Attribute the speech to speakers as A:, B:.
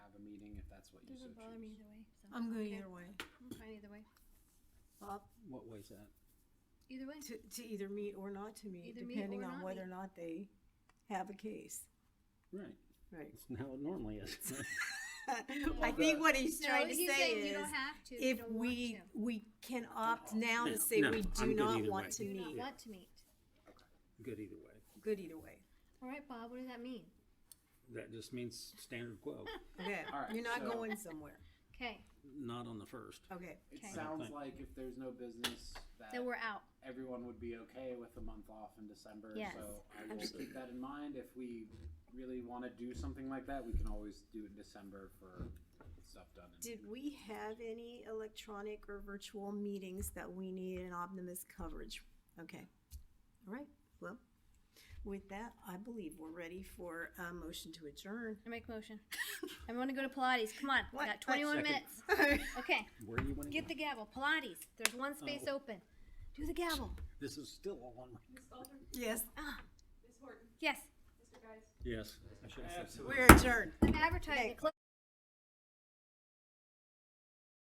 A: that's what you so
B: Doesn't bother me
A: choose.
B: either way. so
C: I'm good
B: okay.
C: either way.
B: I'm fine either way.
C: Bob,
A: What way's that?
B: Either way.
C: to, to either meet or not to meet,
B: Either meet
C: depending
B: or
C: on
B: not
C: whether or
B: meet.
C: not they have a case.
A: Right,
C: Right.
A: it's how it normally is.
C: I think what he's trying to
B: he's saying
C: say
B: you don't
C: is,
B: have to. you
C: if
B: don't
C: we,
B: want to.
C: we can opt now
A: No,
C: to say
A: no,
C: we
A: I'm
C: do
A: good
C: not
A: either way.
C: want to
B: do not
C: meet.
B: want to meet.
A: Good either way.
C: Good either way.
B: All right, Bob. What does that mean?
A: That just means standard quo,
C: Okay,
D: All right,
C: you're not
D: so-
C: going somewhere.
B: Okay,
A: not on the first.
C: Okay,
D: It
B: Okay.
D: sounds
A: Thank-
D: like if there's no business, that
B: then we're out.
D: everyone would be okay with a month off in December.
B: Yes.
D: So I will
C: Absolutely.
D: keep that in mind. If we really want to do something like that, we can always do it in December for stuff done. In
C: did we have any electronic or virtual meetings that we need an Optimus coverage? Okay, all right, well, with that, I believe we're ready for a motion to adjourn.
B: I make motion. I want to go to Pilates. Come on.
C: What?
B: We got 21
A: Second.
B: minutes. Okay,
A: Where do you want to
B: get
A: go?
B: the gavel. Pilates. There's one space open. Do the gavel.
A: This is still all on my.
E: Ms. Baldwin,
C: Yes,
E: Ms. Horton,
B: Yes.
E: Mr. Guys.
A: Yes. I should have said.
C: we're adjourned.
B: I'm advertising.
C: Okay.
B: Close-